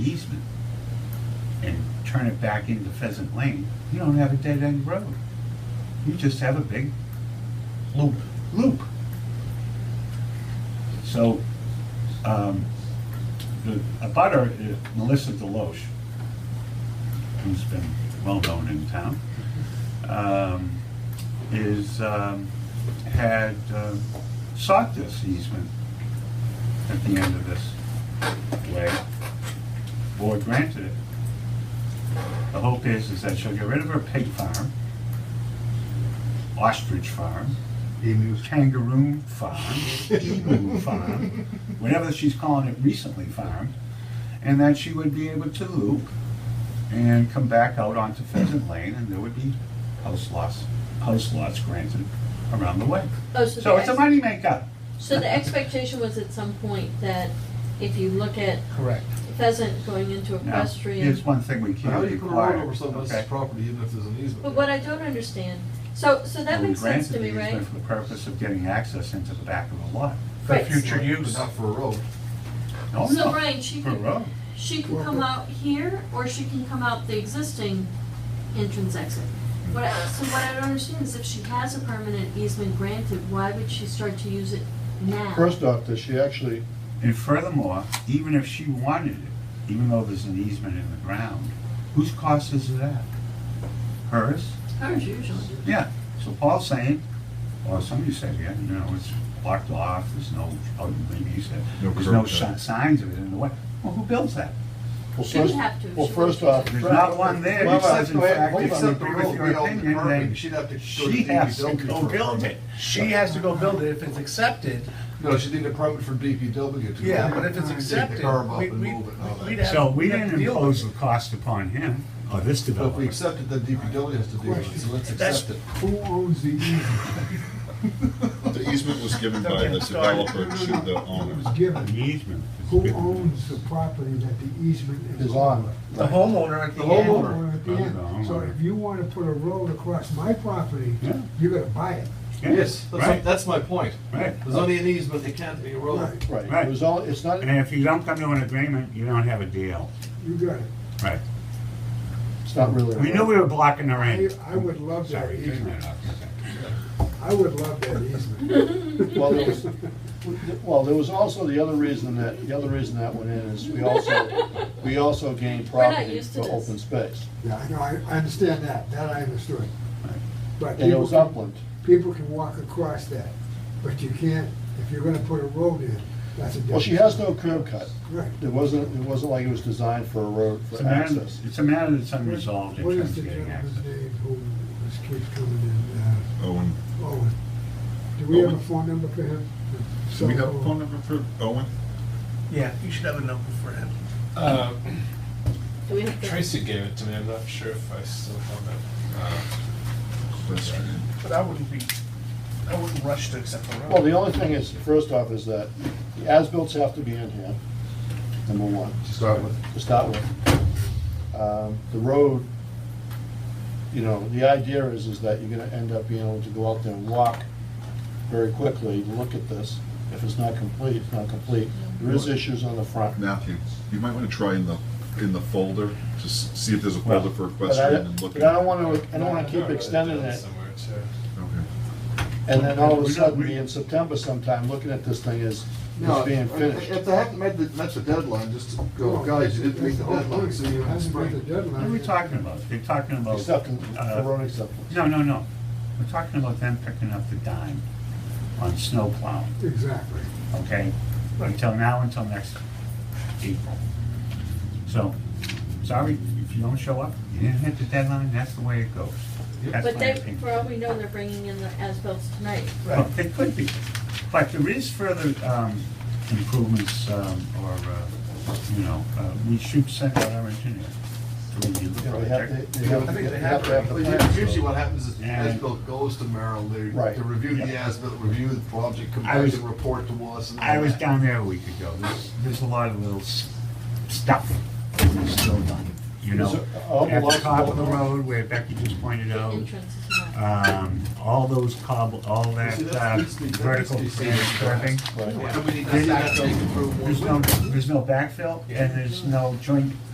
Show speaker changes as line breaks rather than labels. easement and turn it back into Pheasant Lane, you don't have a dead-end road. You just have a big
Loop.
loop. So, um, the, a butter, is Melissa Deloche, who's been well-known in town, um, is, um, had um, sought this easement at the end of this way. Board granted it. The hope is, is that she'll get rid of her pig farm, ostrich farm,
Emus.
kangaroo farm, emu farm, whatever she's calling it recently farm, and that she would be able to loop and come back out onto Pheasant Lane, and there would be house lots, house lots granted around the way.
Oh, so
So
the,
it's a
ex-
money maker.
so the expectation was at some point that if you look at
Correct.
pheasant going into
Now,
equestrian.
here's one thing we
How
can't
do you put a road
require,
over someone
okay?
else's property even if there's an easement?
But what I don't understand, so, so that
We
makes sense to
granted
me,
the
right?
easement For the purpose of getting access into the back of the lot.
For
Right.
future
But
use.
not for a road.
No,
So
no,
Brian, she
for a
could,
road.
she can come out here or she can come out the existing entrance exit. What I, so what I don't understand is if she has a permanent easement granted, why would she start to use it now?
First off, does she actually,
And furthermore, even if she wanted it, even though there's an easement in the ground, whose cost is that? Hers?
Hers usually.
Yeah, so Paul's saying, or somebody said, yeah, you know, it's blocked off, there's no, oh, maybe you said,
No
there's no
curb cut.
si- signs of it in the way. Well, who builds that?
well,
She would
first,
have to if
well,
she
first
wanted
off.
There's not one there
Well,
because in
well,
fact,
hold
if
on.
you
Except the
agree with
road
your
be out in
opinion,
the
then
permit, she'd have to go to
she
DPW
has to
for
go
Go build it. She has to go build it if it's accepted.
No, she did a permit from DPW to.
Yeah, but if
Take
it's
the
accepted,
curb up
we,
and
we,
move it and all that.
we'd have.
So we
we'd have
didn't
to deal
impose
with
the
it.
cost upon him, or Oh, this
But if we
developer.
accept it, then DPW has to deal with it, so let's
That's-
accept it.
Who owns the easement?
The easement was given by the developer to the
It
owner.
was
An
given.
easement.
Who owns the property that the easement is
Is
on?
on.
The homeowner at
The
the
homeowner.
end.
Or at the end. So if you wanna put a road across my property,
Yeah.
you gotta buy it.
Yeah,
Yes, that's,
Right,
that's my point.
right.
There's only an easement, it can't be a road.
Right,
Right,
Right.
it was all, it's not,
And if you don't come to an agreement, you don't have a deal.
you got it.
Right.
it's not really. a
We knew
road.
we were blocking the
I,
rain.
I would love that
Sorry, taking
easement.
that off.
I would love that easement.
Well, there was, well, there was also the other reason that, the other reason that went in is we also, we also gained
We're not
property
used to
for
this.
open space.
Yeah, I know, I, I understand that, that I understood. But
And it
people,
was
can-
upland.
people can walk across that, but you can't, if you're gonna put a road in, that's a different.
Well, she has no curb cut.
Right.
It wasn't, it wasn't like it was designed for a road
It's
for
a matter,
access.
it's a matter that's unresolved in
What is
terms
the
of getting access.
gentleman's name who just keeps coming in, uh?
Owen,
Owen. Do we have a
Owen.
phone number for him?
do we have a phone number for Owen?
Yeah, you should have a number for him.
Uh,
Do we have to-
Tracy gave it to me, I'm not sure if I still have it. Uh,
But I wouldn't be, I wouldn't rush to accept the road.
Well, the only thing is, first off, is that the as-bills have to be in here, number one.
To start with.
to start with. Um, The road, you know, the idea is, is that you're gonna end up being able to go out there and walk very quickly, look at this. If it's not complete, it's not complete. There is issues on the front.
Matthew, you might want to try in the, in the folder, just see if there's a folder for
But I,
equestrian and look.
but I don't
at-
wanna, I don't wanna
I
keep
wrote
extending
down
it,
Somewhere too.
Okay.
and then all of
We're
a
not-
sudden,
we-
be in September sometime, looking at this thing as, as
No, if
being
uh,
if
finished.
they haven't met the, met the deadline, just go, guys, you didn't meet the deadline, so you have
Hasn't met the
spring.
deadline.
What are we talking about? They're talking about.
Acceptance,
uh,
for road acceptance.
No, no, no. We're talking about them picking up the dime on snow plowing,
Exactly.
okay? Until now, until next April. So, sorry, if you don't show up, you didn't hit the deadline, that's the way it goes. That's
But
my
they,
opinion.
for all we know, they're bringing in the as-bills tonight.
Well, it could be, but there is further um, improvements um, or, uh, you know, uh, we should send out our engineer to review the
You know, they have
project.
to, they have
I
to
think
get-
they
they
have
have to have
Well,
the
u-
plans.
Usually what happens is the
And-
ASBIL goes to Merrill, they,
Right.
they review the
Yeah.
ASBIL, review the project, come
I
back
was-
and report to us and all
I was
that.
down there a week ago. There's, there's a lot of little s- stuff that's still done, you know?
There's a- a whole
At the
lot of
top of the
little-
road where Becky just pointed
The
out,
entrance is not.
um, all those cobble, all that
See, that's-
uh,
that's the- that's
vertical
the same
curving.
Right.
And we need
There's
to
no-
backfill to improve one
There's
way.
no, there's no backfill, and there's no joint